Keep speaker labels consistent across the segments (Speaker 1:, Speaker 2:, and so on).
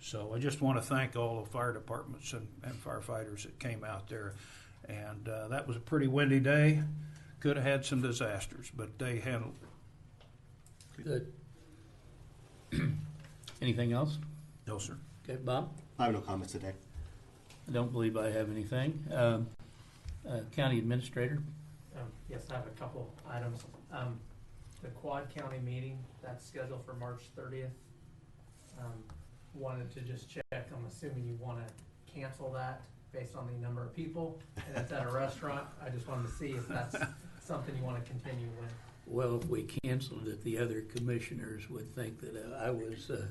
Speaker 1: So I just want to thank all the fire departments and, and firefighters that came out there. And uh, that was a pretty windy day. Could have had some disasters, but they handled it.
Speaker 2: Good. Anything else?
Speaker 1: No, sir.
Speaker 2: Okay, Bob?
Speaker 3: I have no comments today.
Speaker 2: I don't believe I have anything. Um, uh, County Administrator,
Speaker 4: Um, Yes, I have a couple items. Um, The Quad County meeting, that's scheduled for March thirtieth. Um, Wanted to just check, I'm assuming you want to cancel that based on the number of people, and it's at a restaurant. I just wanted to see if that's something you want to continue with.
Speaker 2: well, if we canceled it, the other commissioners would think that I was uh,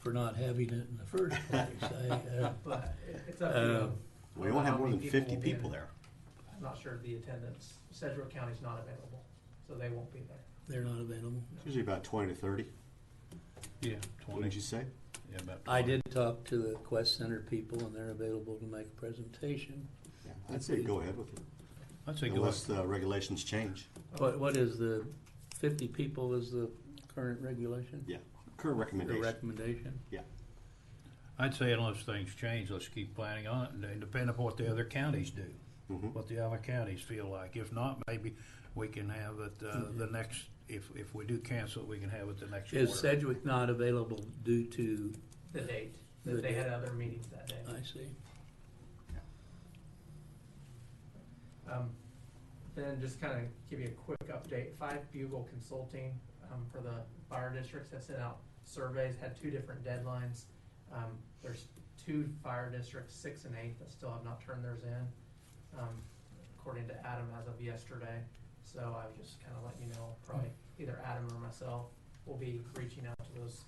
Speaker 2: for not having it in the first place. I, uh,
Speaker 4: But it- it's up to you.
Speaker 3: Uh, We won't have
Speaker 4: How
Speaker 3: more than
Speaker 4: many
Speaker 3: fifty
Speaker 4: will be
Speaker 3: people
Speaker 4: there?
Speaker 3: there.
Speaker 4: I'm not sure of the attendance. Sedgwick County's not available, so they won't be there.
Speaker 2: They're not available.
Speaker 3: It's usually about twenty to thirty,
Speaker 1: Yeah,
Speaker 3: wouldn't you say?
Speaker 1: Yeah, about
Speaker 2: I did talk to the Quest Center people, and they're available to make a presentation.
Speaker 3: Yeah, I'd say go ahead with it,
Speaker 1: I'd say go
Speaker 3: unless the regulations change.
Speaker 2: What, what is the, 50 people is the current regulation?
Speaker 3: Yeah, current
Speaker 2: The
Speaker 3: recommendation.
Speaker 2: recommendation?
Speaker 1: I'd say unless things change, let's keep planning on it, and then depend upon what the other counties do,
Speaker 3: Mhm.
Speaker 1: what the other counties feel like. If not, maybe we can have it, uh, the next, if, if we do cancel, it, we can have it the next
Speaker 2: Is
Speaker 1: quarter.
Speaker 2: Sedgwick not available due to,
Speaker 4: The date,
Speaker 2: The
Speaker 4: that they had
Speaker 2: date.
Speaker 4: other meetings that day.
Speaker 2: I see.
Speaker 4: Um, Then just kind of give you a quick update, Five Bugle Consulting, um, for the fire districts that sent out surveys, had two different deadlines. Um, there's two fire districts, six and eight, that still have not turned theirs in, um, according to Adam as of yesterday. So I would just kind of let you know, probably either Adam or myself will be reaching out to those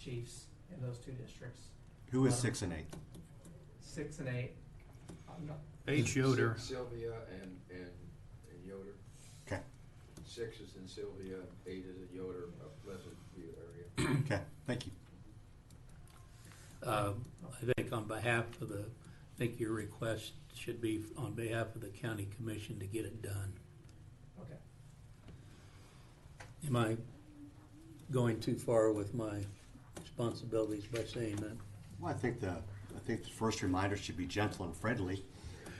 Speaker 4: chiefs in those two districts,
Speaker 3: Who is six and eight?
Speaker 4: six and eight. I'm not,
Speaker 1: H. Yoder,
Speaker 5: Sylvia and, and, and Yoder.
Speaker 3: Okay.
Speaker 5: Six is in Sylvia, eight is in Yoder, up Pleasant View area.
Speaker 3: Okay, thank you.
Speaker 2: Um, I think on behalf of the, I think your request should be on behalf of the county commission to get it done.
Speaker 4: okay.
Speaker 2: Am I going too far with my responsibilities by saying that?
Speaker 3: Well, I think the, I think the first reminder should be gentle and friendly,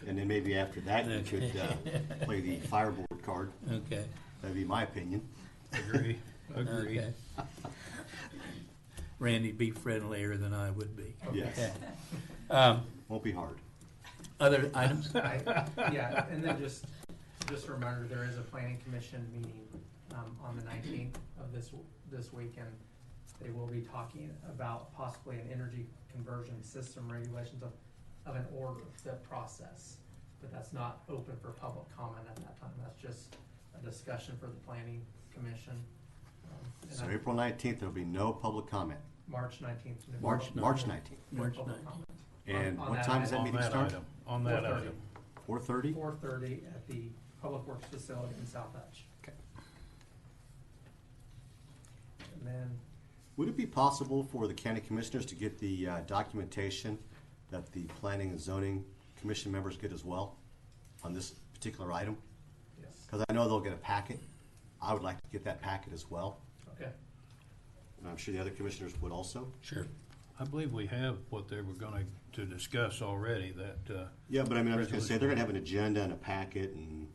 Speaker 3: and then maybe after that, you could, uh, play the fireboard card.
Speaker 2: Okay,
Speaker 3: That'd be my opinion.
Speaker 1: agree, agree.
Speaker 2: okay. Randy, be friendlier than I would be.
Speaker 3: Yes,
Speaker 2: Um,
Speaker 3: won't be hard.
Speaker 2: Other items?
Speaker 4: I- Yeah, and then just, just a reminder, there is a planning commission meeting, um, on the nineteenth of this, w- this weekend. They will be talking about possibly an energy conversion system regulations of, of an order, the process. But that's not open for public comment at that time, that's just a discussion for the planning commission. Um, and
Speaker 3: So
Speaker 4: I-
Speaker 3: April nineteenth, there'll be no public comment.
Speaker 4: March nineteenth.
Speaker 3: March, March nineteenth.
Speaker 2: March
Speaker 3: And
Speaker 4: On- on
Speaker 3: what
Speaker 4: that
Speaker 3: time does that
Speaker 1: On
Speaker 3: meeting
Speaker 1: that
Speaker 3: start?
Speaker 1: item, on that item.
Speaker 3: Four thirty?
Speaker 4: Four thirty at the Public Works Facility in South Hutch.
Speaker 3: Okay.
Speaker 4: And then,
Speaker 3: Would it be possible for the county commissioners to get the uh, documentation that the planning and zoning commission members get as well on this particular item?
Speaker 4: yes,
Speaker 3: Because I know they'll get a packet. I would like to get that packet as well,
Speaker 4: okay,
Speaker 3: and I'm sure the other commissioners would also.
Speaker 2: Sure.
Speaker 1: I believe we have what they were gonna, to discuss already, that, uh,
Speaker 3: Yeah, but I mean, I was gonna say, they're gonna have an agenda and a packet and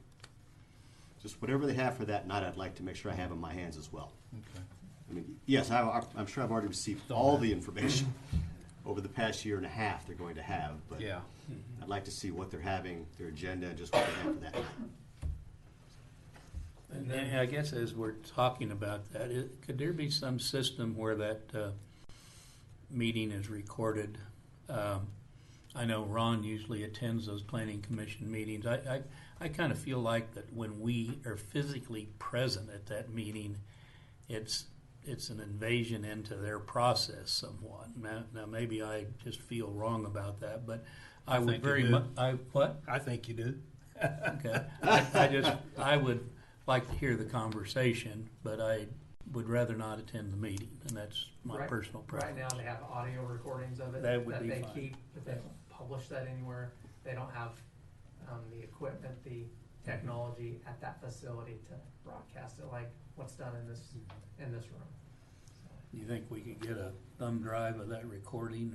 Speaker 3: just whatever they have for that night, I'd like to make sure I have in my hands as well.
Speaker 1: okay.
Speaker 3: I mean, yes, I, I'm sure I've already received all the information over the past year and a half they're going to have, but.
Speaker 1: Yeah,
Speaker 3: I'd like to see what they're having, their agenda, and just what they have for that night.
Speaker 2: And then, I guess as we're talking about that, i- could there be some system where that uh, meeting is recorded? Um, I know Ron usually attends those planning commission meetings. I, I, I kind of feel like that when we are physically present at that meeting, it's, it's an invasion into their process somewhat. Now, now maybe I just feel wrong about that, but I would
Speaker 1: think you
Speaker 2: very
Speaker 1: do.
Speaker 2: much, I, what?
Speaker 1: I think you do.
Speaker 2: Okay, I, I just, I would like to hear the conversation, but I would rather not attend the meeting, and that's my
Speaker 4: Right.
Speaker 2: personal
Speaker 4: right
Speaker 2: preference.
Speaker 4: now they have audio recordings of it.
Speaker 2: That would be
Speaker 4: they
Speaker 2: fine.
Speaker 4: keep, but they don't publish that anywhere, they don't have, um, the equipment, the technology at that facility to broadcast it, like what's done in this, in this room. So,
Speaker 2: You think we could get a thumb drive of that recording